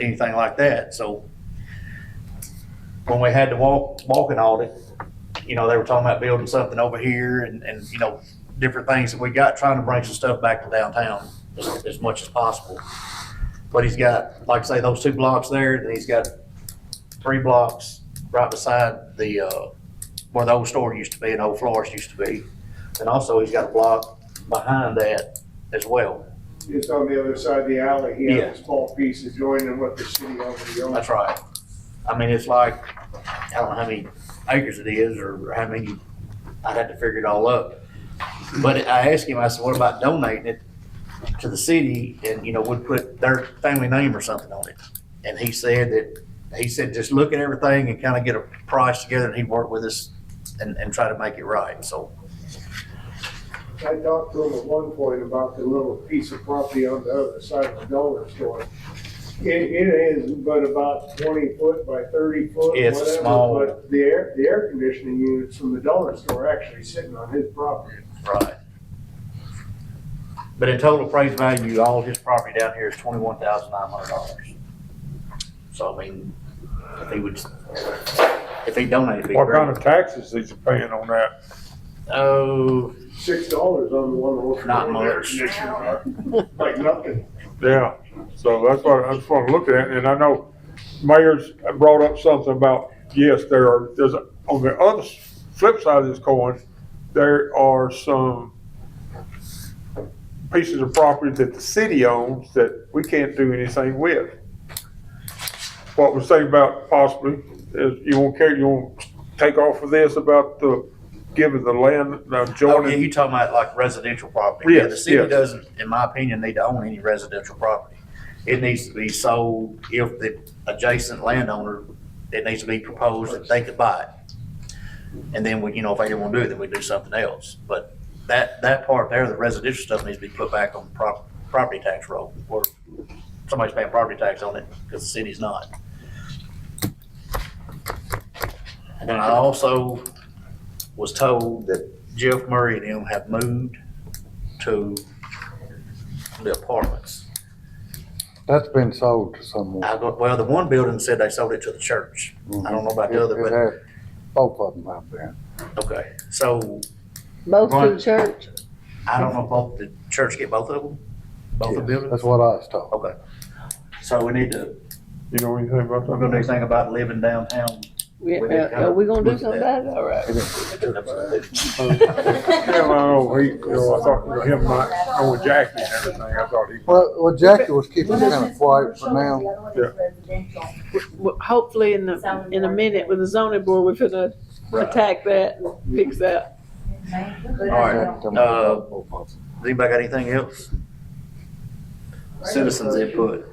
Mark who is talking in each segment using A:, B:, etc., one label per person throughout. A: anything like that, so. When we had the walk, walking audit, you know, they were talking about building something over here and, and, you know, different things that we got, trying to bring some stuff back to downtown as, as much as possible. But he's got, like I say, those two blocks there, and he's got three blocks right beside the, uh, where the old store used to be and old florist used to be. And also, he's got a block behind that as well.
B: Just on the other side of the alley, he
A: Yeah.
B: has a small piece adjoining what the city already owns.
A: That's right. I mean, it's like, I don't know how many acres it is or how many, I'd have to figure it all up. But I asked him, I said, what about donating it to the city and, you know, would put their family name or something on it? And he said that, he said, just look at everything and kind of get a price together and he'd work with us and, and try to make it right, so.
B: I talked to him at one point about the little piece of property on the other side of the dollar store. It, it is but about twenty foot by thirty foot,
A: It's
B: whatever,
A: small.
B: but the air, the air conditioning units from the dollar store are actually sitting on his property.
A: Right. But in total appraised value, all his property down here is twenty-one thousand nine hundred dollars. So I mean, if he would, if he donated, it'd be
C: What kind
A: great.
C: of taxes is he paying on that?
A: Oh,
B: Six dollars on the one over.
A: Not
B: the air
A: much.
B: conditioner, Like nothing.
C: Yeah, so that's what, I just want to look at, and I know mayor's brought up something about, yes, there are, there's, a- on the other s- flip side of this coin, there are some pieces of property that the city owns that we can't do anything with. What we're saying about possibly is you won't care, you won't take off of this about the, giving the land, the
A: oh, yeah,
C: adjoining
A: you talking about like residential property? Yeah, The
C: Yes,
A: city
C: yes.
A: doesn't, in my opinion, need to own any residential property. It needs to be sold if the adjacent landowner, it needs to be proposed that they could buy it. And then we, you know, if they didn't want to do it, then we do something else. But that, that part there, the residential stuff needs to be put back on prop, property tax roll or somebody's paying property tax on it because the city's not. And then I also was told that Jeff Murray and him have moved to the apartments.
D: That's been sold to someone.
A: I go, well, the one building said they sold it to the church. I don't know about the
D: Mm-hmm. It- it
A: other,
D: had- Both of them have been.
A: but, okay. So
E: Both
A: Right.
E: to church?
A: I don't know if both, the church get both of them? Both the
D: Yes,
A: buildings?
D: That's what I was told.
A: Okay. So we need to,
C: You know anything about
A: we're gonna do
C: that?
A: anything about living downtown.
E: Yeah,
A: We didn't
E: uh, Are we gonna do
A: look
E: something
A: at that.
E: about it? All right.
D: It is.
C: Hell, I know, he, you know, I thought, you know, him, I, Oh, with Jackie and everything, I thought he,
D: Well, well, Jackie was keeping
F: One
D: kind
F: of
D: of quiet for now.
F: now.
E: Well, Hopefully in the, in a minute with the zoning board, we're gonna
A: Right.
E: attack that and fix that.
A: right. Uh, Does anybody got anything else? Citizens input.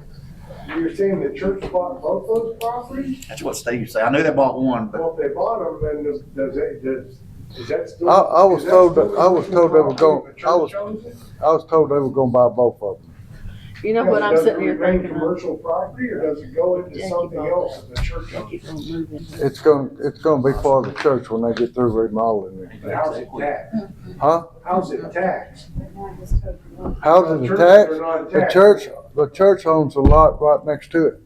B: You're saying the church bought both those properties?
A: That's what Steve said. I knew they bought one, but
B: Well, if they bought them, then does, does, it- does, is that still?
D: I- I was
B: is that
D: told
B: still
D: that- I was told they were
B: property
D: gonna- I was-
B: The church owns it?
D: I was told they were gonna buy both of them.
E: You know what I'm
B: Does it
E: sitting here
B: remain
E: thinking of?
B: Commercial property or does it go into
E: Yankee
B: something
E: Bobby.
B: else that the church owns?
E: Keep on moving.
D: It's gonna, it's gonna be part of the church when they get through remodeling it.
B: But how's it taxed?
D: Huh?
B: How's it taxed?
D: How's it
B: Churches are
D: attached?
B: not
D: The
B: taxed.
D: church, the church owns a lot right next to it.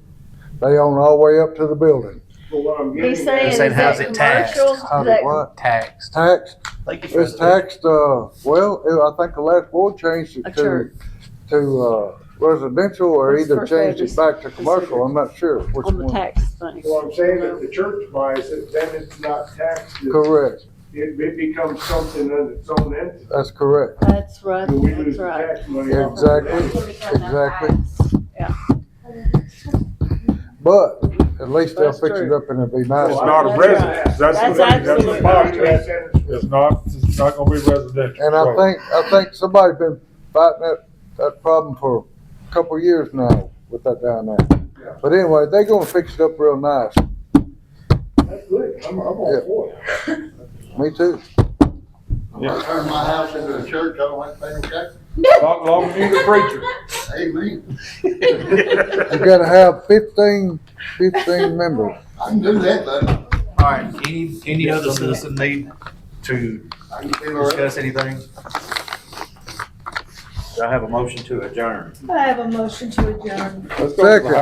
D: They own all the way up to the building.
B: But what I'm getting.
E: He's saying,
B: at-
E: is
A: saying, how's
E: that
A: it taxed?
E: commercial?
D: How's it
E: Is that-
D: what?
A: tax.
D: Taxed,
A: Thank you for
D: it's
A: that.
D: taxed, uh, well, I think the last board changed
E: A
D: it to,
E: church.
D: to, uh, residential or
E: What's
D: either
E: first
D: changed
E: address
D: it back to commercial.
E: considered?
D: I'm not sure which
E: On the
D: one.
E: tax thing.
B: Well, I'm saying that the church buys it, then it's not taxed. It-
D: Correct,
B: It, it becomes something on its own entity.
D: that's correct.
E: That's right,
B: And we lose
E: that's
B: the
E: right.
B: tax money. off of it.
D: Exactly. Exactly. But at least they'll
E: That's
D: fix it
E: true.
D: up and it'll be nice.
C: It's not a
E: That's
C: residence, that's the
E: That's
C: thing, that's the
E: absolutely
C: box,
E: right.
C: it's not, it's not gonna be residential.
D: And I think, I think somebody's been fighting that, that problem for a couple of years now with that down
B: Yeah.
D: there. But anyway, they are gonna fix it up real nice.
B: That's good. I'm, I'm all
D: Yeah.
B: for it.
D: Me too.
C: Yeah.
G: Turn my house into a church, I don't like paying taxes.
C: Long, long as you the preacher.
G: Amen.
D: You gotta have fifteen, fifteen members.
G: I can do that, but
A: All right, any, any other citizen need to
G: I can feel all right.
A: discuss anything? Do I have a motion to adjourn?
F: I have a motion to adjourn.
C: Let's go to the
D: Second.